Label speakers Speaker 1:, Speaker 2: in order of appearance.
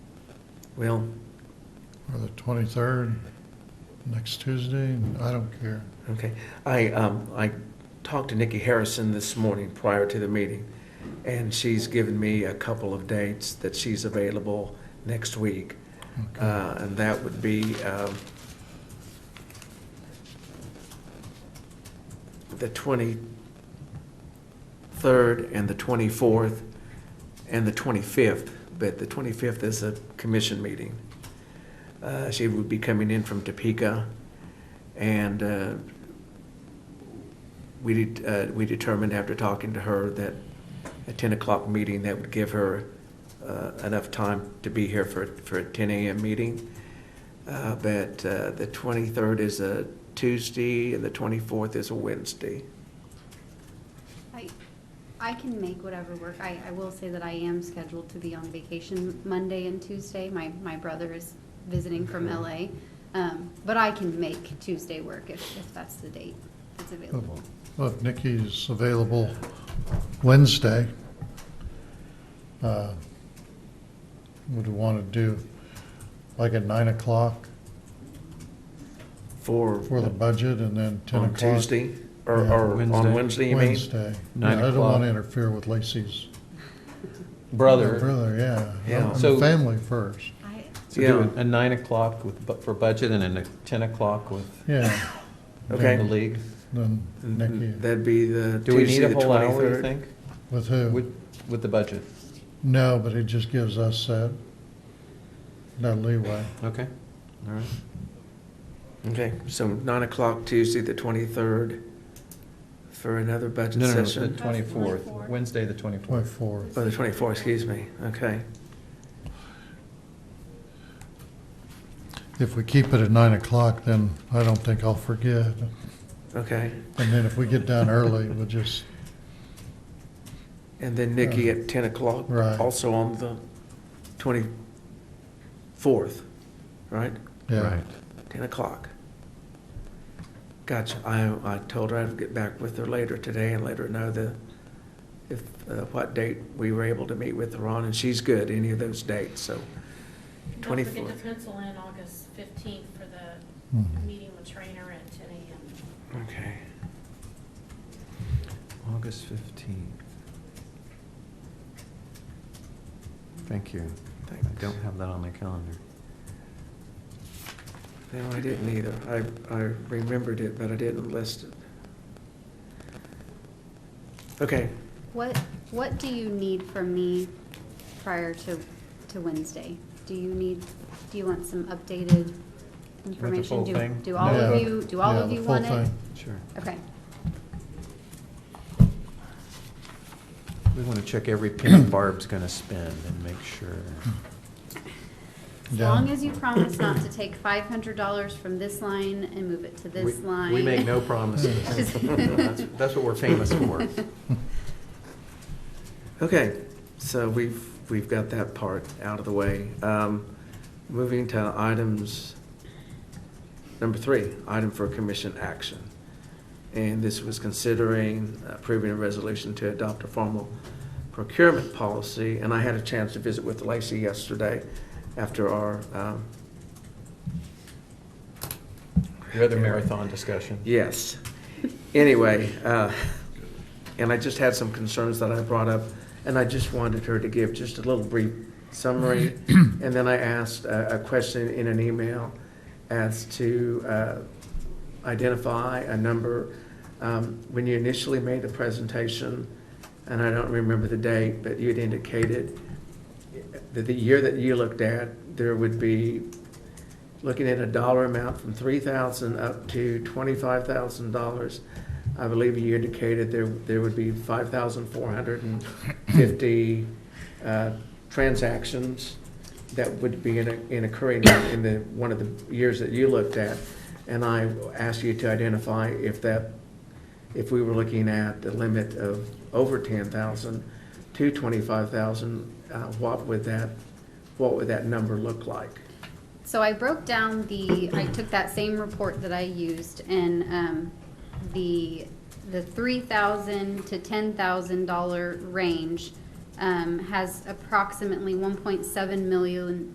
Speaker 1: Well,
Speaker 2: or the 23rd, next Tuesday, I don't care.
Speaker 1: okay. I, um, I talked to Nikki Harrison this morning prior to the meeting, and she's given me a couple of dates that she's available next week.
Speaker 2: Okay.
Speaker 1: Uh, and that would be, um, the twenty-third and the twenty-fourth and the twenty-fifth, but the twenty-fifth is a commission meeting. Uh, she would be coming in from Topeka, and, uh, we did, uh, we determined after talking to her that a ten o'clock meeting, that would give her, uh, enough time to be here for, for a ten AM meeting. Uh, but, uh, the twenty-third is a Tuesday, and the twenty-fourth is a Wednesday.
Speaker 3: I, I can make whatever work. I, I will say that I am scheduled to be on vacation Monday and Tuesday. My, my brother is visiting from LA. Um, but I can make Tuesday work if, if that's the date that's available.
Speaker 2: Look, Nikki's available Wednesday. Uh, Would want to do like at 9 o'clock
Speaker 1: For,
Speaker 2: for the budget and then 10
Speaker 1: on
Speaker 2: o'clock.
Speaker 1: Tuesday, or,
Speaker 2: Yeah.
Speaker 1: or on
Speaker 4: Wednesday.
Speaker 1: Wednesday, you mean?
Speaker 2: Wednesday. Yeah,
Speaker 4: Nine
Speaker 2: I don't want
Speaker 4: o'clock.
Speaker 2: to interfere with Lacey's.
Speaker 4: brother.
Speaker 2: Brother, yeah.
Speaker 1: Yeah.
Speaker 2: And
Speaker 4: So-
Speaker 2: family first,
Speaker 3: I,
Speaker 4: So do
Speaker 1: Yeah.
Speaker 4: a nine o'clock with, bu- for budget and then a ten o'clock with
Speaker 2: yeah.
Speaker 1: Okay.
Speaker 4: the league.
Speaker 2: Then Nikki,
Speaker 4: Mm-hmm.
Speaker 1: That'd be the
Speaker 4: Do we
Speaker 1: Tuesday, the
Speaker 4: need a whole hour, you
Speaker 1: twenty-third.
Speaker 4: think?
Speaker 2: with who?
Speaker 4: With, with the budget?
Speaker 2: No, but it just gives us that, that leeway.
Speaker 4: Okay, all right.
Speaker 1: Okay, so nine o'clock Tuesday, the twenty-third, for another budget
Speaker 4: No, no, no, the
Speaker 1: session.
Speaker 4: twenty-fourth,
Speaker 3: 24th.
Speaker 4: Wednesday, the twenty-fourth.
Speaker 2: 24th.
Speaker 1: Oh, the twenty-fourth, excuse me, okay.
Speaker 2: If we keep it at 9 o'clock, then I don't think I'll forget.
Speaker 1: Okay,
Speaker 2: And then if we get done early, we'll just,
Speaker 1: and then Nikki at ten o'clock,
Speaker 2: Right.
Speaker 1: also on the twenty-fourth, right?
Speaker 2: yeah.
Speaker 1: Ten o'clock. Gotcha, I, I told her I'd get back with her later today and let her know the, if, uh, what date we were able to meet with her on, and she's good, any of those dates, so.
Speaker 5: Don't forget
Speaker 1: 24th.
Speaker 5: to pencil in August fifteenth for the
Speaker 2: Mhm.
Speaker 5: meeting with Trainer at ten AM.
Speaker 1: Okay.
Speaker 4: August fifteenth. Thank you.
Speaker 1: Thanks.
Speaker 4: I don't have that on my calendar.
Speaker 1: No, I didn't either. I, I remembered it, but I didn't list it. Okay,
Speaker 3: what, what do you need from me prior to, to Wednesday? Do you need, do you want some updated information?
Speaker 4: full
Speaker 3: Do-
Speaker 4: thing?
Speaker 3: Do all of
Speaker 2: Yeah.
Speaker 3: you, do all
Speaker 2: Yeah,
Speaker 3: of
Speaker 2: the
Speaker 3: you
Speaker 2: full
Speaker 3: want it?
Speaker 2: thing.
Speaker 4: Sure.
Speaker 3: Okay,
Speaker 4: We want to check every penny Barb's going to spend and make sure.
Speaker 3: as
Speaker 2: Yeah.
Speaker 3: long as you promise not to take five hundred dollars from this line and move it to this
Speaker 4: We-
Speaker 3: line.
Speaker 4: We make no promises. That's that's what we're famous for.
Speaker 1: okay, so we've, we've got that part out of the way. Um, Moving to items, number three, item for commission action. And this was considering approving a resolution to adopt a formal procurement policy. And I had a chance to visit with Lacey yesterday after our, um,
Speaker 4: Your other marathon discussion.
Speaker 1: Yes. Anyway, uh, and I just had some concerns that I brought up, and I just wanted her to give just a little brief summary. And then I asked a a question in an email as to uh, identify a number. Um, When you initially made the presentation, and I don't remember the date, but you had indicated that the year that you looked at, there would be looking at a dollar amount from three thousand up to twenty-five thousand dollars. I believe you indicated there, there would be five thousand four hundred and fifty, uh, transactions that would be in, a- in occurring in the, one of the years that you looked at. And I asked you to identify if that, if we were looking at the limit of over ten thousand to twenty-five thousand, uh, what would that, what would that number look like?
Speaker 3: So I broke down the, I took that same report that I used and, um, the, the three thousand to ten thousand dollar range, um, has approximately one point seven million